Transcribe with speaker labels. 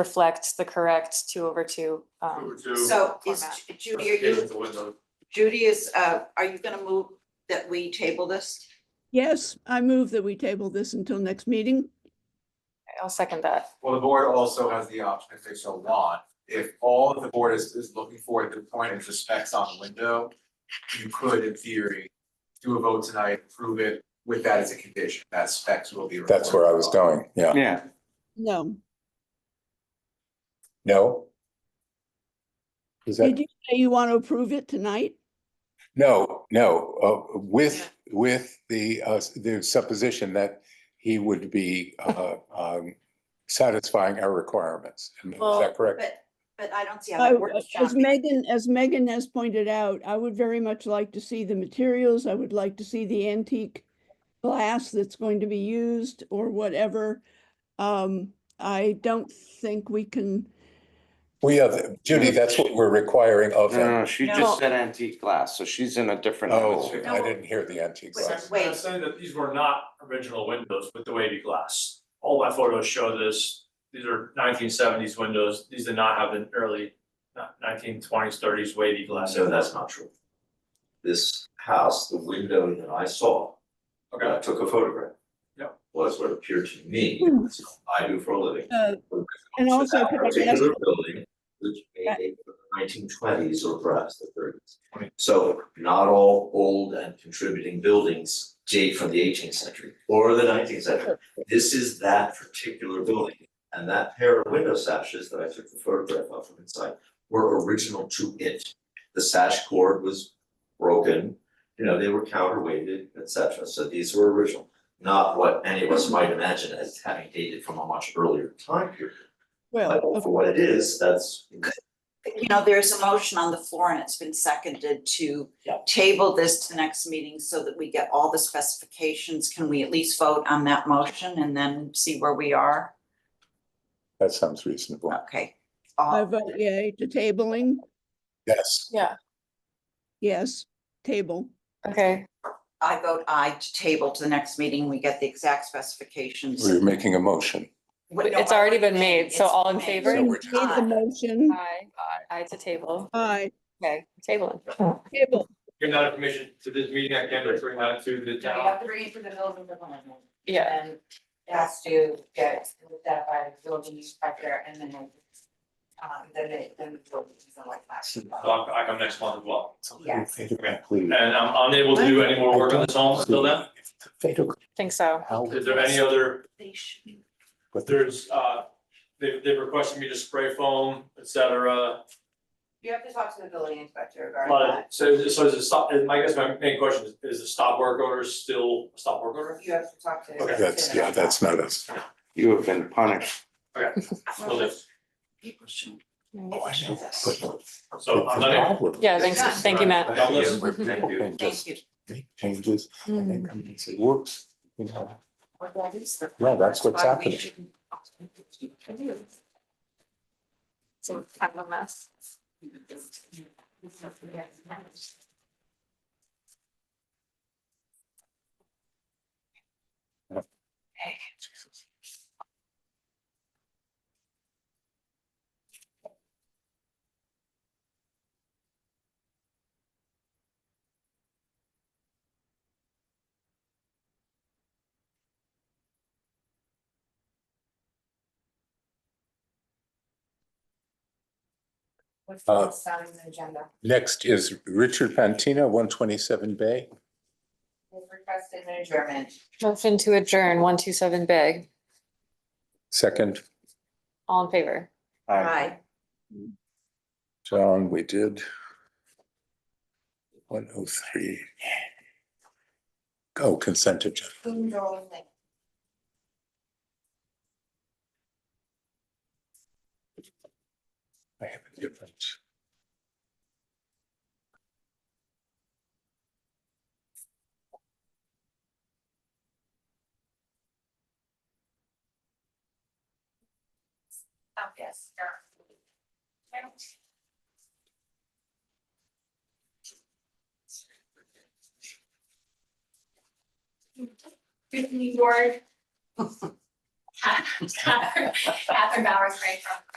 Speaker 1: reflect the correct two over two. Um,
Speaker 2: So is
Speaker 1: format.
Speaker 2: Ju- Judy, are you, Judy is, uh, are you gonna move that we table this?
Speaker 3: Yes, I move that we table this until next meeting.
Speaker 1: I'll second that.
Speaker 4: Well, the board also has the option if they so want, if all the board is is looking for at the point is the specs on the window. You could in theory do a vote tonight, approve it with that as a condition, that specs will be.
Speaker 5: That's where I was going, yeah.
Speaker 6: Yeah,
Speaker 3: No.
Speaker 5: No? Is that,
Speaker 3: Did you say you want to approve it tonight?
Speaker 5: no, no, uh, with, with the, uh, the supposition that he would be, uh, um, satisfying our requirements. Is
Speaker 1: Well,
Speaker 5: that correct?
Speaker 2: But, but I don't see how
Speaker 3: I-
Speaker 2: that works,
Speaker 3: As
Speaker 2: John.
Speaker 3: Megan, as Megan has pointed out, I would very much like to see the materials. I would like to see the antique glass that's going to be used or whatever. Um, I don't think we can,
Speaker 5: We have, Judy, that's what we're requiring of
Speaker 6: no,
Speaker 5: him.
Speaker 6: no, she
Speaker 1: No.
Speaker 6: just said antique glass, so she's in a different
Speaker 5: Oh,
Speaker 6: hemisphere.
Speaker 5: I didn't hear the antique
Speaker 2: Wait,
Speaker 5: glass.
Speaker 2: wait.
Speaker 7: I'm saying that these were not original windows with the wavy glass. All my photos show this. These are nineteen seventies windows. These did not have an early nineteen twenties, thirties wavy glass.
Speaker 8: So that's not true. This house, the window that I saw, I
Speaker 7: Okay,
Speaker 8: took a photograph.
Speaker 7: Yeah.
Speaker 8: Was what appeared to me,
Speaker 3: Hmm.
Speaker 8: I do for a living.
Speaker 3: uh, and
Speaker 8: So
Speaker 3: also.
Speaker 8: that
Speaker 3: could I ask-
Speaker 8: Particular building, which may date from the nineteen twenties or perhaps the thirties. So not all old and contributing buildings date from the eighteenth century or the nineteenth century. This is that particular building. And that pair of window sashes that I took the photograph of from inside were original to it. The sash cord was broken, you know, they were counterweighted, et cetera. So these were original. Not what any of us might imagine as having dated from a much earlier time period. But
Speaker 3: Well, of-
Speaker 8: for what it is, that's.
Speaker 2: You know, there's a motion on the floor and it's been seconded to
Speaker 8: Yeah.
Speaker 2: table this to the next meeting so that we get all the specifications. Can we at least vote on that motion and then see where we are?
Speaker 5: That sounds reasonable.
Speaker 2: Okay.
Speaker 3: I
Speaker 2: All-
Speaker 3: vote yay to tabling.
Speaker 5: Yes,
Speaker 1: Yeah,
Speaker 3: Yes, table.
Speaker 1: okay.
Speaker 2: I vote aye to table to the next meeting. We get the exact specifications.
Speaker 5: we're making a motion.
Speaker 2: What- no,
Speaker 1: It's already been
Speaker 2: I-
Speaker 1: made, so
Speaker 2: it's
Speaker 1: all in
Speaker 2: made.
Speaker 1: favor?
Speaker 3: Made
Speaker 5: So we're just-
Speaker 3: the motion.
Speaker 1: Aye, aye to table.
Speaker 3: Aye,
Speaker 1: Okay, table.
Speaker 3: table.
Speaker 7: give that information to this meeting. I can't bring that to the
Speaker 9: No, you
Speaker 7: town.
Speaker 9: have to bring it to the building department.
Speaker 1: Yeah,
Speaker 9: And it has to get looked at by the building inspector and then. Um, then it, then the building is like
Speaker 7: So
Speaker 9: that.
Speaker 7: I'll, I'll come next month as well.
Speaker 9: Yes.
Speaker 7: And I'm unable to do any more work on this home until then.
Speaker 1: think so.
Speaker 7: Is there any other,
Speaker 2: They should be
Speaker 7: there's, uh, they, they requested me to spray foam, et cetera.
Speaker 9: You have to talk to the building inspector regarding
Speaker 7: But
Speaker 9: that.
Speaker 7: so so is the stop, and I guess my main question is, is the stop work order still a stop work order?
Speaker 9: You have to talk to.
Speaker 7: Okay.
Speaker 5: That's, yeah, that's not us.
Speaker 6: You have been punished.
Speaker 7: Will do.
Speaker 2: people should-
Speaker 5: Oh,
Speaker 7: So I'm not,
Speaker 1: Yeah, thanks, thank you, Matt.
Speaker 7: That was-
Speaker 5: People can
Speaker 2: Thank
Speaker 5: just
Speaker 2: you.
Speaker 5: make changes and
Speaker 1: Mm.
Speaker 5: then come and say, whoops, you know,
Speaker 9: What that is.
Speaker 5: no, that's what's
Speaker 9: why we
Speaker 5: happening.
Speaker 9: shouldn't-
Speaker 1: So kind of a mess.
Speaker 9: What's
Speaker 5: Uh,
Speaker 9: next on the agenda?
Speaker 5: Next is Richard Pantina, one twenty-seven Bay.
Speaker 9: We've requested an adjournment.
Speaker 1: Motion to adjourn, one, two, seven, big.
Speaker 5: Second,
Speaker 1: All in favor?
Speaker 2: Aye.
Speaker 5: John, we did. One oh three. Oh, consent agenda.
Speaker 9: Boondoggle thing.
Speaker 5: I have a different.
Speaker 9: Oh, yes. sure. Good evening, board.
Speaker 2: Catherine Bowers, right from